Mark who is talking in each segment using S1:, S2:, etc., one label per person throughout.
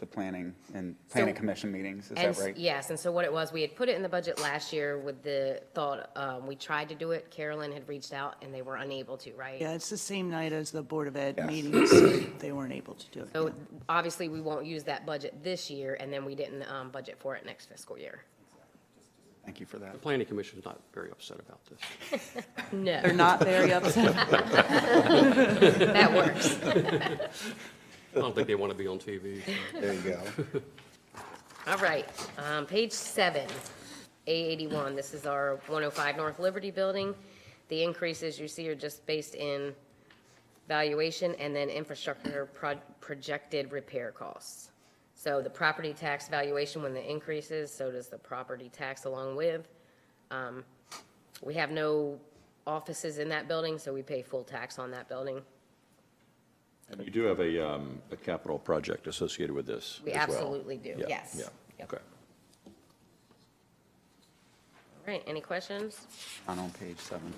S1: the planning and planning commission meetings, is
S2: And
S1: that
S2: s-
S1: right?
S2: Yes, and so what it was, we had put it in the budget last year with the thought, um, we tried to do it, Carolyn had reached out and they were unable to, right?
S3: Yeah, it's the same night as the Board of Ed
S1: Yes.
S3: meetings. They weren't able to do it.
S2: So obviously, we won't use that budget this year, and then we didn't um, budget for it next fiscal year.
S1: Thank you for that.
S4: The planning commission's not very upset about this.
S2: No,
S3: They're not very upset.
S2: that works.
S4: I don't think they want to be on TV. so.
S1: There you go.
S2: All right, um, page seven, A eighty-one, this is our one oh five North Liberty Building. The increases you see are just based in valuation and then infrastructure pro- projected repair costs. So the property tax valuation, when the increases, so does the property tax along with. Um, We have no offices in that building, so we pay full tax on that building.
S5: And you do have a, um, a capital project associated with this
S2: We
S5: as well?
S2: absolutely do,
S5: Yeah,
S2: yes.
S5: Yeah,
S2: Yep.
S5: okay.
S2: All right, any questions?
S1: On on page seven.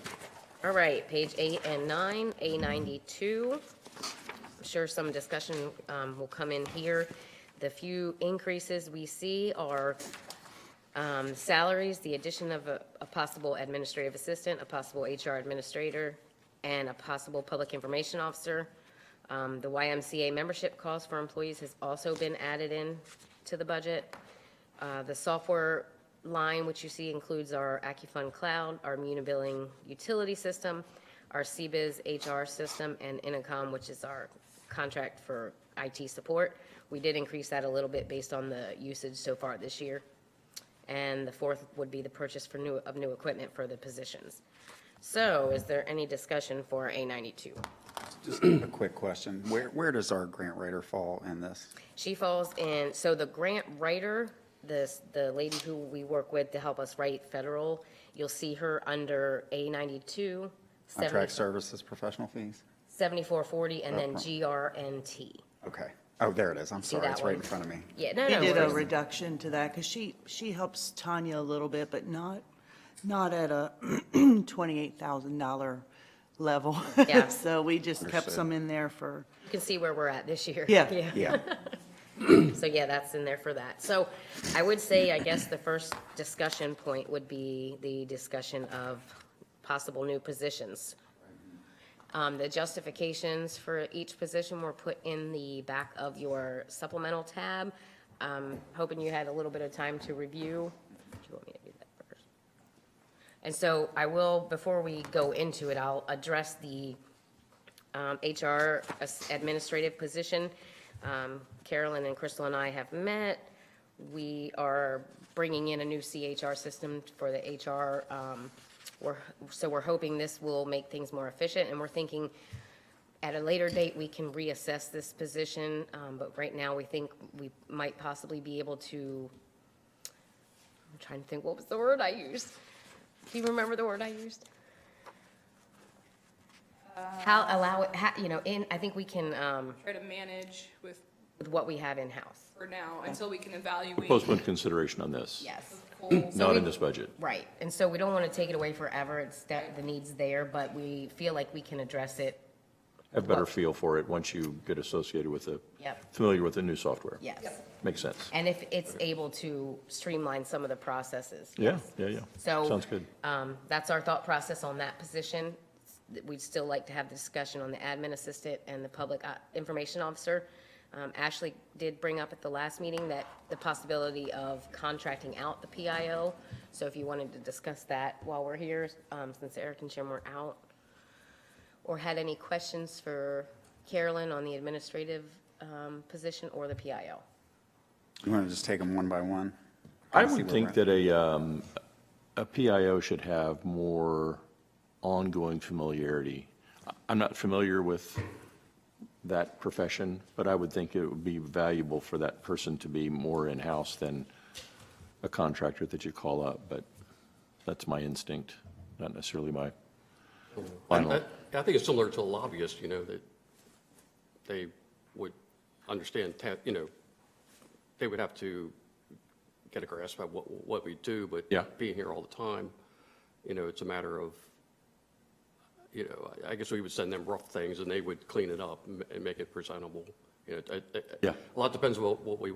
S2: All right, page eight and nine, A ninety-two. I'm sure some discussion um, will come in here. The few increases we see are um, salaries, the addition of a a possible administrative assistant, a possible HR administrator, and a possible public information officer. Um, The YMCA membership cost for employees has also been added in to the budget. Uh, The software line, which you see includes our AccuFund Cloud, our Munibilling utility system, our CBIZ HR system, and Intercom, which is our contract for IT support. We did increase that a little bit based on the usage so far this year. And the fourth would be the purchase for new, of new equipment for the positions. So is there any discussion for A ninety-two?
S1: Just a quick question. Where, where does our grant writer fall in this?
S2: She falls in, so the grant writer, this, the lady who we work with to help us write federal, you'll see her under A ninety-two,
S1: Contract services professional fees?
S2: seventy-four forty, and then
S1: Uh-huh.
S2: GRNT.
S1: Okay. Oh, there it is. I'm
S2: See
S1: sorry.
S2: that
S1: It's right in
S2: one?
S1: front of me.
S2: Yeah, no,
S3: They
S2: no
S3: did a
S2: worries.
S3: reduction to that because she, she helps Tanya a little bit, but not, not at a $28,000 level.
S2: Yeah.
S3: So we just kept
S1: Understood.
S3: some in there for,
S2: You can see where we're at this year.
S3: Yeah.
S1: Yeah.
S2: So yeah, that's in there for that. So I would say, I guess the first discussion point would be the discussion of possible new positions. Um, the justifications for each position were put in the back of your supplemental tab. Um, hoping you had a little bit of time to review. Do you want me to do that first? And so I will, before we go into it, I'll address the um, HR as- administrative position. Um, Carolyn and Crystal and I have met. We are bringing in a new CHR system for the HR. um, We're, so we're hoping this will make things more efficient, and we're thinking at a later date, we can reassess this position, um, but right now, we think we might possibly be able to, I'm trying to think, what was the word I used? Do you remember the word I used? How, allow it, how, you know, in, I think we can, um,
S6: try to manage with,
S2: with what we have in-house.
S6: for now, until we can evaluate.
S5: Postpone consideration on this?
S2: Yes.
S6: Goals.
S2: So
S5: Not
S2: we-
S5: in this budget?
S2: Right, and so we don't want to take it away forever, it's, that, the need's there, but we feel like we can address it,
S5: Have a better feel for it once you get associated with the,
S2: Yep.
S5: familiar with the new software?
S2: yes.
S5: Makes sense.
S2: And if it's able to streamline some of the processes.
S5: Yeah, yeah, yeah.
S2: So.
S5: Sounds good.
S2: Um, that's our thought process on that position. We'd still like to have the discussion on the admin assistant and the public uh, information officer. Um, Ashley did bring up at the last meeting that the possibility of contracting out the PIO. So if you wanted to discuss that while we're here, um, since Eric and Jim were out, or had any questions for Carolyn on the administrative, um, position or the PIO.
S1: You want to just take them one by one?
S5: I
S1: Kinda see
S5: would
S1: where
S5: think
S1: we're at.
S5: that a, um, a PIO should have more ongoing familiarity. I- I'm not familiar with that profession, but I would think it would be valuable for that person to be more in-house than a contractor that you call up, but that's my instinct, not necessarily my final.
S4: I I think it's similar to a lobbyist, you know, that they would understand, ta- you know, they would have to get a grasp about what, what we do, but
S5: Yeah.
S4: being here all the time, you know, it's a matter of, you know, I- I guess we would send them rough things and they would clean it up and ma- and make it presentable. You know, it- it-
S5: Yeah.
S4: A lot depends what, what we